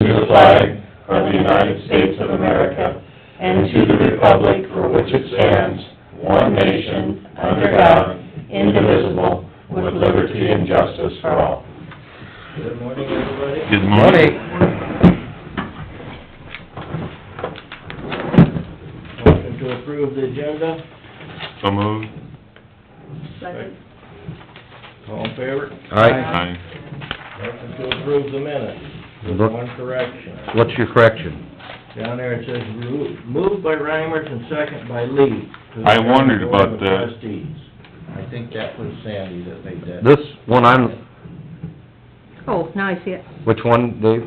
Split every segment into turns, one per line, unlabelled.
the flag of the United States of America and to the republic for which it stands, one nation, under God, indivisible, with liberty and justice for all.
Good morning, everybody.
Good morning.
Motion to approve the agenda.
So moved.
Second.
All in favor?
Aye.
Motion to approve the minutes. With
Look.
one correction.
What's your correction?
Down there it says remo- moved by Reimers and second by Lee. to the
I wondered
Board of
about that.
Trustees. I think that was Sandy that made that.
This one I'm,
Oh, now I see it.
which one, Dave?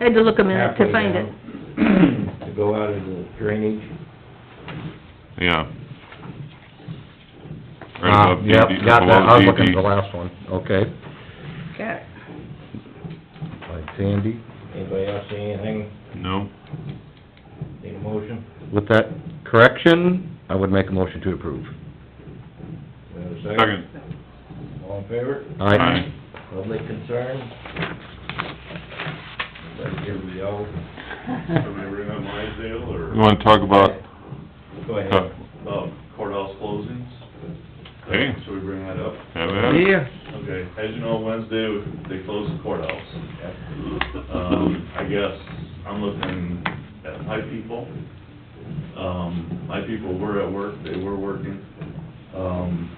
I had to look a minute to find it.
it. To go out of the drainage.
Yeah. Right
Ah,
above
Yep,
DD,
got that, I was
below
looking at the
DD.
last one, okay.
Got it.
By Sandy,
Anybody else see anything?
No,
Need a motion?
with that correction, I would make a motion to approve.
We have a
second.
All in favor?
Aye.
Public concern? Let everybody else,
Remember on Mydale
You
or,
wanna talk about,
go
uh,
ahead.
um, courthouse closings?
Hey.
Should we bring that up?
have it?
Okay, as you know, Wednesday, they close the courthouse. Um, I guess, I'm looking at my people. Um, my people were at work, they were working. Um,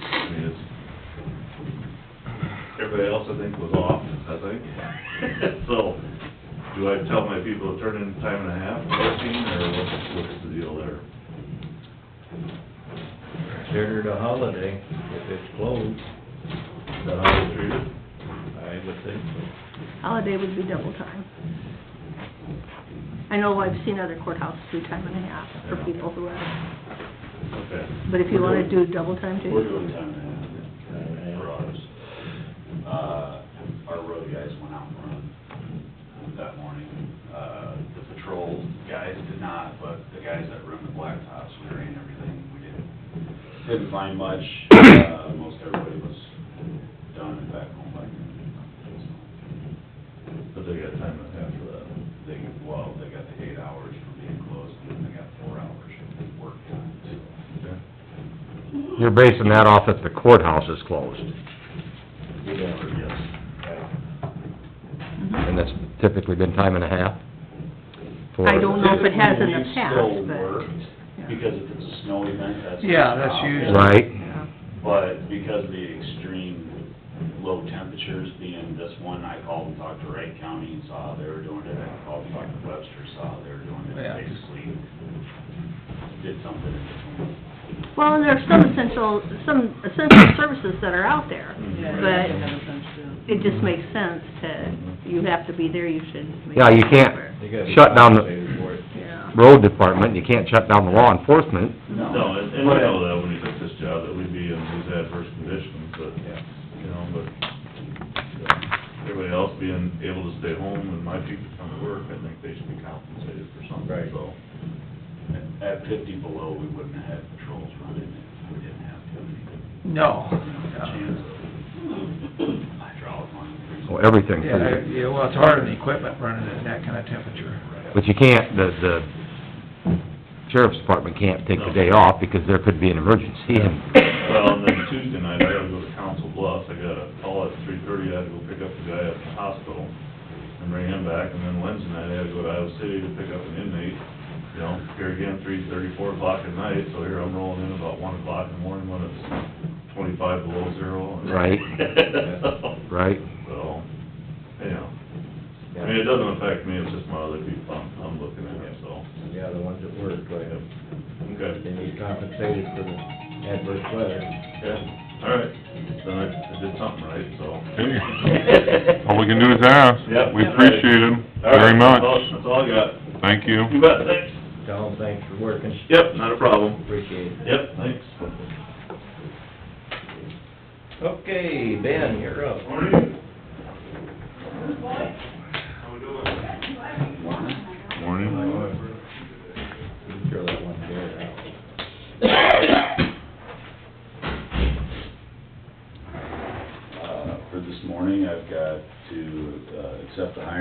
I mean, it's, everybody else I think was off, I think. So, do I tell my people to turn in time and a half working, or what's, what's the deal there?
Considered a holiday if it's closed,
Is that how they treat it?
I would think so.
Holiday would be double time. I know I've seen other courthouses do time and a half for people who are,
Okay.
but if you wanna do double time
We're
too.
doing time and a half for ours. Uh, our road guys went out and run that morning. Uh, the patrol guys did not, but the guys that run the blacktops, we ran everything. We didn't, didn't find much. Uh, most everybody was done and back home by noon.
But they got time and a half for that.
They, well, they got the eight hours for being closed and then they got four hours of work time, so.
You're basing that off that the courthouse is closed, and that's typically been time and a half? for-
I don't know if it has in the
Typically,
past,
still worked,
but.
Because if it's a snow event, that's.
Yeah, that's usually-
Right,
Yeah.
But because of the extreme low temperatures being this one, I called and talked to Wright County and saw they were doing it. I called and talked to Webster, saw they were doing
Yeah.
it. Basically, did something in between.
Well, and there's some essential, some essential services that are out there, but it just makes sense to, you have to be there, you should make.
Yeah, you can't-
sure.
You gotta be
Shut down the-
compensated for it.
Yeah.
road department, you can't shut down the law enforcement,
No, and and I know that when you took this job, that we'd be in these adverse conditions, but, you know, but uh, everybody else being able to stay home and my people come to work, I think they should be compensated for something,
Right.
so.
At- At fifty below, we wouldn't have had patrols running if we didn't have to.
No.
Chance of hydraulic monitoring.
well, everything.
Yeah, yeah, well, it's hard on the equipment running at that kind of temperature.
But you can't, the, the sheriff's department can't take the day off because there could be an emergency and
Well, and then Tuesday night, I gotta go to Council Bluffs, I gotta call at three thirty, I had to go pick up the guy at the hospital and bring him back, and then Wednesday night, I had to go to Iowa City to pick up an inmate, you know, here again, three thirty, four o'clock at night, so here I'm rolling in about one o'clock in the morning when it's twenty-five below zero. and-
Right. Right?
So, anyhow, I mean, it doesn't affect me, it's just my other people I'm, I'm looking at, so,
Yeah, the ones that work, right,
okay.
they need compensated for the adverse weather.
Yeah, all right, then I I did something right, so.
All we can do is ask.
Yep.
We appreciate him
All
very
right,
much.
That's all- that's all I got.
Thank you.
You bet, thanks.
Tell them thanks for working,
Yep, not a problem.
appreciate it.
Yep, thanks.
Okay, Ben, you're up.
Morning. How we doing?
Morning.
Throw that one chair out.
Uh, For this morning, I've got to uh, accept the hiring